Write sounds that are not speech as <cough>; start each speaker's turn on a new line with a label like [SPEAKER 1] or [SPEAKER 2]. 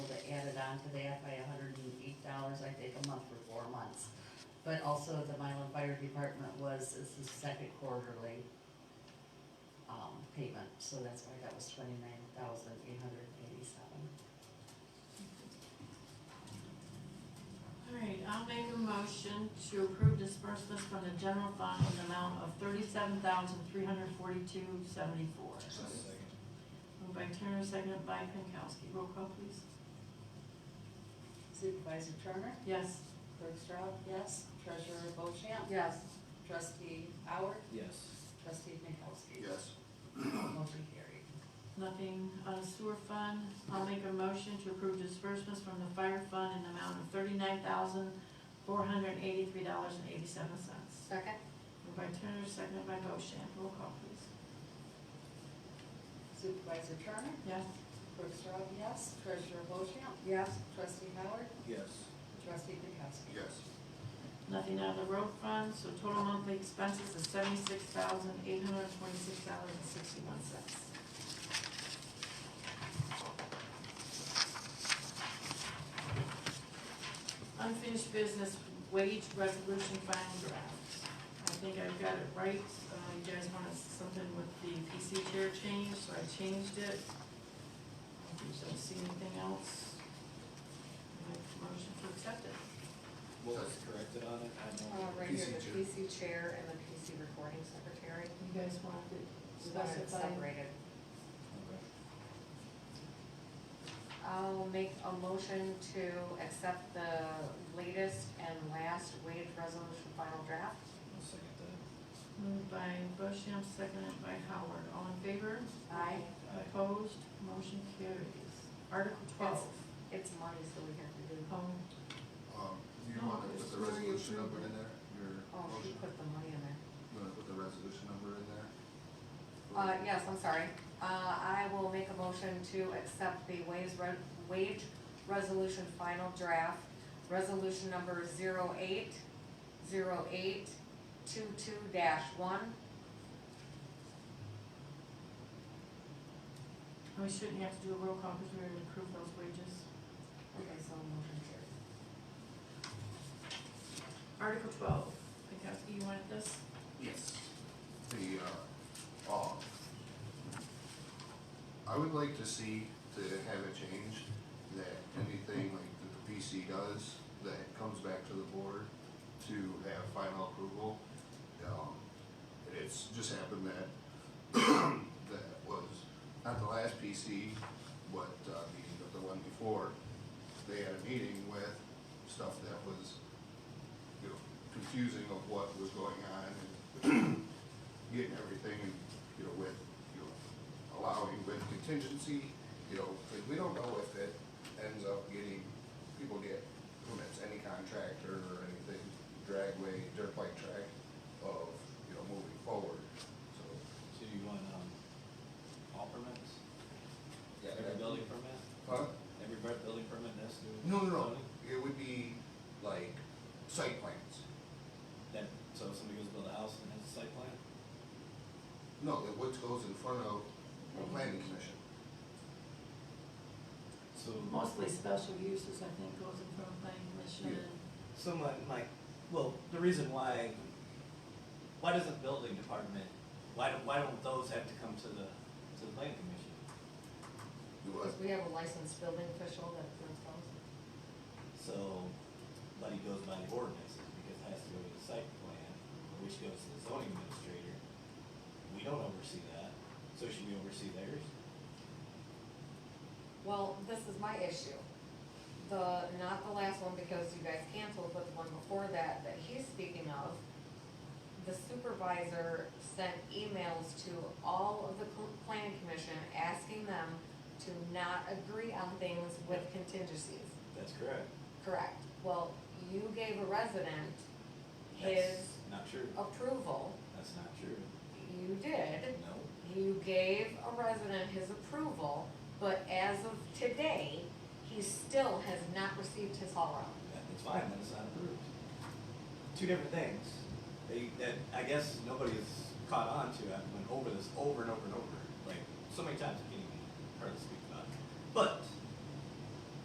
[SPEAKER 1] onto that by hundred and eight dollars, I think, a month for four months. But also the Milan Fire Department was, this is second quarterly, um, payment, so that's why that was twenty-nine thousand eight hundred eighty-seven.
[SPEAKER 2] All right, I'll make a motion to approve disbursements from the general fund in the amount of thirty-seven thousand, three hundred forty-two, seventy-four. Moved by Turner, seconded by Pinkowski. Roll call, please.
[SPEAKER 1] Supervisor Turner?
[SPEAKER 2] Yes.
[SPEAKER 1] Clerk Strad? Yes. Treasurer Bochamp?
[SPEAKER 2] Yes.
[SPEAKER 1] Trustee Howard?
[SPEAKER 3] Yes.
[SPEAKER 1] Trustee Nikowski?
[SPEAKER 4] Yes.
[SPEAKER 1] Motion carried.
[SPEAKER 2] Nothing on the sewer fund. I'll make a motion to approve disbursements from the fire fund in the amount of thirty-nine thousand, four hundred eighty-three dollars and eighty-seven cents.
[SPEAKER 1] Second.
[SPEAKER 2] Moved by Turner, seconded by Bochamp. Roll call, please.
[SPEAKER 1] Supervisor Turner?
[SPEAKER 2] Yes.
[SPEAKER 1] Clerk Strad? Yes. Treasurer Bochamp?
[SPEAKER 2] Yes.
[SPEAKER 1] Trustee Howard?
[SPEAKER 3] Yes.
[SPEAKER 1] Trustee Nikowski?
[SPEAKER 4] Yes.
[SPEAKER 2] Nothing out of the road fund, so total monthly expenses is seventy-six thousand, eight hundred and twenty-six dollars and sixty-one cents. Unfinished business wage resolution final draft. I think I've got it right, uh, you guys wanted something with the PC chair change, so I changed it. If you don't see anything else, I make a motion to accept it.
[SPEAKER 3] What was corrected on it? I
[SPEAKER 5] Uh,
[SPEAKER 3] know.
[SPEAKER 5] right here,
[SPEAKER 4] PC
[SPEAKER 5] the
[SPEAKER 4] chair.
[SPEAKER 5] PC chair and the PC recording secretary.
[SPEAKER 2] You guys want to
[SPEAKER 5] We want it
[SPEAKER 2] specify?
[SPEAKER 5] separated.
[SPEAKER 3] Okay.
[SPEAKER 5] I'll make a motion to accept the latest and last wage resolution final draft.
[SPEAKER 3] I'll second that.
[SPEAKER 2] Moved by Bochamp, seconded by Howard. All in favor?
[SPEAKER 5] Aye.
[SPEAKER 3] Aye.
[SPEAKER 2] Opposed? Motion carries. Article twelve.
[SPEAKER 5] Yes. It's money, so we have to do,
[SPEAKER 2] Oh,
[SPEAKER 4] Um, you
[SPEAKER 2] No,
[SPEAKER 4] wanna
[SPEAKER 2] it's
[SPEAKER 4] put the
[SPEAKER 2] where you
[SPEAKER 4] resolution number
[SPEAKER 2] approve
[SPEAKER 4] in there, your
[SPEAKER 5] oh, she
[SPEAKER 4] motion,
[SPEAKER 5] put the money in there.
[SPEAKER 4] you wanna put the resolution number in there?
[SPEAKER 5] Uh, yes, I'm sorry. Uh, I will make a motion to accept the wage, re- wage resolution final draft, resolution number zero eight, zero eight, two two dash one.
[SPEAKER 2] and we shouldn't have to do a roll call because we already approved those wages.
[SPEAKER 5] Okay, so motion carries.
[SPEAKER 2] Article twelve. Pinkowski, you wanted this?
[SPEAKER 4] Yes. The, uh, um, I would like to see, to have it changed, that anything like that the PC does, that comes back to the board to have final approval. Um, it's just happened that, <clears throat> that was, not the last PC, but, uh, meeting, but the one before, they had a meeting with stuff that was you know, confusing of what was going on and <clears throat> getting everything, you know, with, you know, allowing with contingency, you know, 'cause we don't know if it ends up getting, people get permits, any contractor or anything, dragway, dirt bike track of, you know, moving forward, so.
[SPEAKER 3] So you want, um, all permits?
[SPEAKER 4] yeah,
[SPEAKER 3] Every
[SPEAKER 4] that-
[SPEAKER 3] building permit?
[SPEAKER 4] Huh?
[SPEAKER 3] Every bu- building permit has to? do
[SPEAKER 4] No, no, no,
[SPEAKER 3] zoning?
[SPEAKER 4] it would be like site plans.
[SPEAKER 3] That, so if somebody goes build a house and has a site plan?
[SPEAKER 4] No, that what goes in front of the planning commission.
[SPEAKER 3] So.
[SPEAKER 2] Mostly special uses, I think, goes in front of planning commission.
[SPEAKER 3] Someone like, well, the reason why, why doesn't building department, why don't, why don't those have to come to the, to the planning commission?
[SPEAKER 4] You what?
[SPEAKER 5] Because we have a licensed building official that installs.
[SPEAKER 3] So, but he goes by the ordinances, because it has to go to the site plan, which goes to the zoning administrator. We don't oversee that, so should we oversee theirs?
[SPEAKER 5] Well, this is my issue. The, not the last one because you guys canceled, but the one before that, that he's speaking of, the supervisor sent emails to all of the cl- planning commission asking them to not agree on things with contingencies.
[SPEAKER 3] That's correct.
[SPEAKER 5] Correct. Well, you gave a resident his
[SPEAKER 3] That's
[SPEAKER 5] Oh.
[SPEAKER 3] not true,
[SPEAKER 5] approval.
[SPEAKER 3] that's not true,
[SPEAKER 5] You did.
[SPEAKER 3] no.
[SPEAKER 5] You gave a resident his approval, but as of today, he still has not received his haul route.
[SPEAKER 3] that- It's fine, then it's not approved. Two different things. They, that, I guess nobody has caught on to, I've went over this over and over and over, like, so many times, I can't even hardly speak about it. But,